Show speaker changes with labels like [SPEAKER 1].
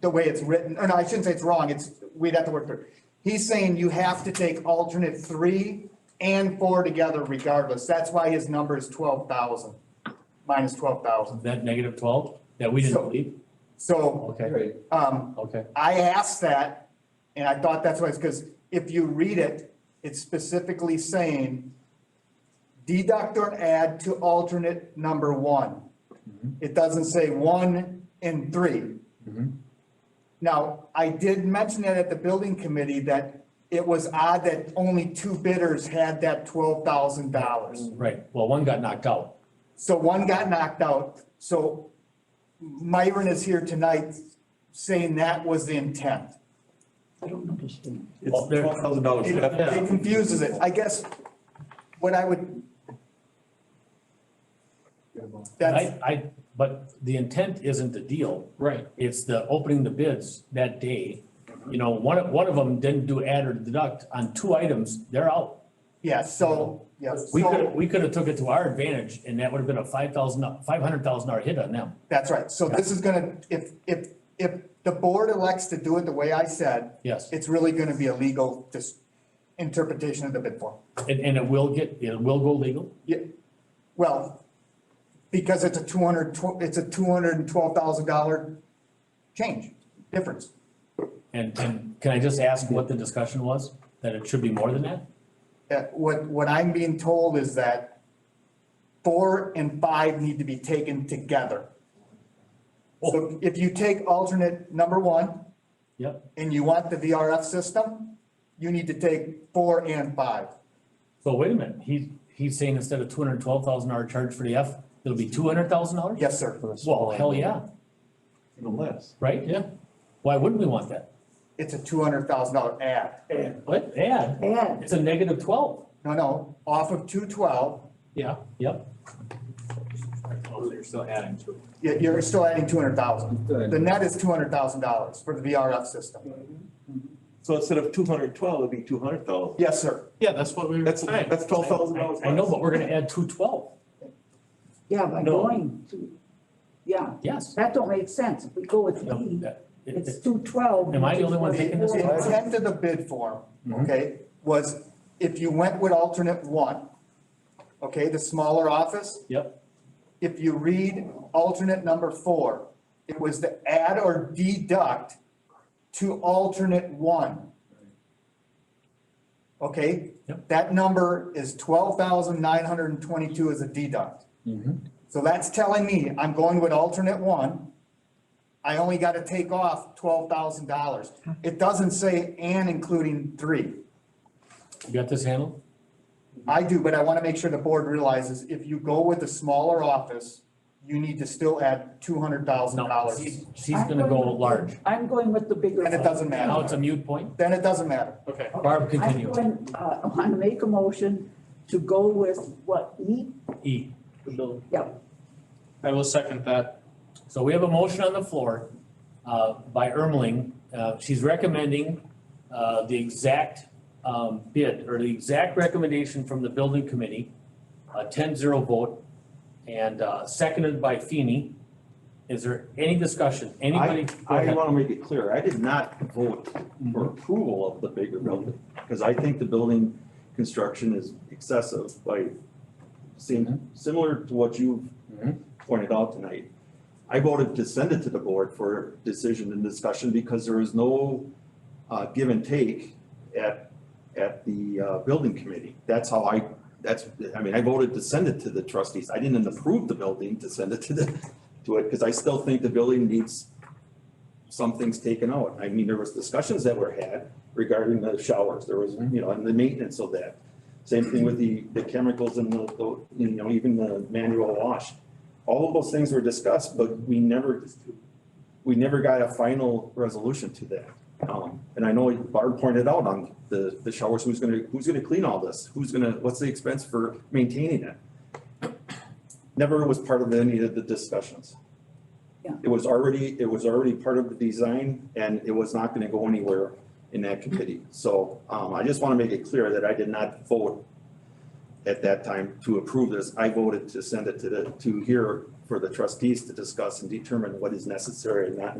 [SPEAKER 1] the way it's written, or no, I shouldn't say it's wrong, it's, we'd have to work through. it. He's saying you have to take alternate three and four together regardless. That's why his number is twelve thousand, minus twelve thousand.
[SPEAKER 2] Is that negative twelve that we
[SPEAKER 1] So-
[SPEAKER 2] didn't believe?
[SPEAKER 1] So,
[SPEAKER 2] Okay,
[SPEAKER 3] Right.
[SPEAKER 1] um,
[SPEAKER 2] okay.
[SPEAKER 1] I asked that, and I thought that's why, because if you read it, it's specifically saying deduct or add to alternate number one. It doesn't say one and three. Now, I did mention that at the building committee that it was odd that only two bidders had that twelve thousand dollars.
[SPEAKER 2] Right, well, one got knocked out.
[SPEAKER 1] So one got knocked out, so Myron is here tonight saying that was the intent.
[SPEAKER 4] I don't understand.
[SPEAKER 3] It's twelve thousand dollars.
[SPEAKER 1] It it confuses it. I guess what I would. That's,
[SPEAKER 2] I, I, but the intent isn't the deal. Right. It's the opening the bids that day. You know, one, of- one of them didn't do add or deduct on two items, they're out.
[SPEAKER 1] yeah, so, yeah,
[SPEAKER 2] We could,
[SPEAKER 1] so,
[SPEAKER 2] we could have took it to our advantage and that would have been a five thousand, five hundred thousand dollar hit on them.
[SPEAKER 1] that's right. So this is gonna, if, if, if the board elects to do it the way I said,
[SPEAKER 2] Yes,
[SPEAKER 1] it's really gonna be a legal just interpretation of the bid form.
[SPEAKER 2] and, and it will get, it will go legal.
[SPEAKER 1] Yeah, well, because it's a two hundred, it's a two hundred and twelve thousand dollar change, difference.
[SPEAKER 2] And, and can I just ask what the discussion was? That it should be more than that?
[SPEAKER 1] Uh, what, what I'm being told is that four and five need to be taken together. So if you take alternate number one
[SPEAKER 2] Yep,
[SPEAKER 1] and you want the VRF system, you need to take four and five.
[SPEAKER 2] so wait a minute, he, he's saying instead of two hundred and twelve thousand dollar charge for the F, it'll be two hundred thousand dollars?
[SPEAKER 1] Yes, sir.
[SPEAKER 2] Well, hell yeah,
[SPEAKER 3] Even less.
[SPEAKER 2] right? Yeah. Why wouldn't we want that?
[SPEAKER 1] It's a two hundred thousand dollar add.
[SPEAKER 2] What, add?
[SPEAKER 4] Yeah.
[SPEAKER 2] It's a negative twelve.
[SPEAKER 1] No, no, off of two twelve,
[SPEAKER 2] Yeah, yep.
[SPEAKER 3] They're still adding to it.
[SPEAKER 1] you're, you're still adding two hundred thousand.
[SPEAKER 3] Good.
[SPEAKER 1] The net is two hundred thousand dollars for the VRF system.
[SPEAKER 3] So instead of two hundred twelve, it'd be two hundred thousand.
[SPEAKER 1] Yes, sir.
[SPEAKER 5] Yeah, that's what we were
[SPEAKER 3] That's,
[SPEAKER 5] saying.
[SPEAKER 3] that's twelve thousand dollars.
[SPEAKER 2] I know, but we're gonna add two twelve,
[SPEAKER 4] Yeah, by
[SPEAKER 3] No.
[SPEAKER 4] going to, yeah,
[SPEAKER 2] yes.
[SPEAKER 4] that don't make sense. If we go with
[SPEAKER 2] No,
[SPEAKER 4] E,
[SPEAKER 2] that- it-
[SPEAKER 4] it's
[SPEAKER 2] it-
[SPEAKER 4] two twelve.
[SPEAKER 2] Am I the only one
[SPEAKER 1] The
[SPEAKER 2] thinking this?
[SPEAKER 1] the intent of the bid form, okay, was if you went with alternate one, okay, the smaller office,
[SPEAKER 2] Yep,
[SPEAKER 1] if you read alternate number four, it was to add or deduct to alternate one. Okay?
[SPEAKER 2] Yep.
[SPEAKER 1] That number is twelve thousand nine hundred and twenty-two as a deduct. So that's telling me I'm going with alternate one. I only gotta take off twelve thousand dollars. It doesn't say and including three.
[SPEAKER 2] you got this handled?
[SPEAKER 1] I do, but I want to make sure the board realizes if you go with the smaller office, you need to still add two hundred thousand
[SPEAKER 2] No,
[SPEAKER 1] dollars.
[SPEAKER 2] she's, she's gonna go large.
[SPEAKER 4] I'm going with the bigger.
[SPEAKER 1] And it doesn't matter.
[SPEAKER 2] Now it's a mute point.
[SPEAKER 1] Then it doesn't matter.
[SPEAKER 5] Okay.
[SPEAKER 2] Barb, continue.
[SPEAKER 4] I'm going, uh, I want to make a motion to go with what, E?
[SPEAKER 2] E.
[SPEAKER 4] Yep,
[SPEAKER 5] I will second that.
[SPEAKER 2] So we have a motion on the floor uh, by Ermeling. Uh, She's recommending uh, the exact um, bid or the exact recommendation from the building committee, a 10-0 vote, and uh, seconded by Feeny. Is there any discussion? Anybody?
[SPEAKER 3] I,
[SPEAKER 2] Go
[SPEAKER 3] I
[SPEAKER 2] ahead.
[SPEAKER 3] want to make it clear, I did not vote for approval of the bigger building, because I think the building construction is excessive by seem, similar to what you've
[SPEAKER 2] Mhm.
[SPEAKER 3] pointed out tonight. I voted to send it to the board for decision and discussion because there is no uh, give and take at, at the uh, building committee. That's how I, that's, I mean, I voted to send it to the trustees. I didn't approve the building to send it to the, to it, because I still think the building needs some things taken out. I mean, there was discussions that were had regarding the showers, there was, you know, and the maintenance of that. Same thing with the, the chemicals and the, the, you know, even the manual wash. All of those things were discussed, but we never, we never got a final resolution to that. Um, and I know Barb pointed out on the, the showers, who's gonna, who's gonna clean all this? Who's gonna, what's the expense for maintaining it? Never was part of any of the discussions.
[SPEAKER 4] Yeah.
[SPEAKER 3] It was already, it was already part of the design and it was not gonna go anywhere in that committee. So, um, I just wanna make it clear that I did not vote at that time to approve this. I voted to send it to the, to here for the trustees to discuss and determine what is necessary and not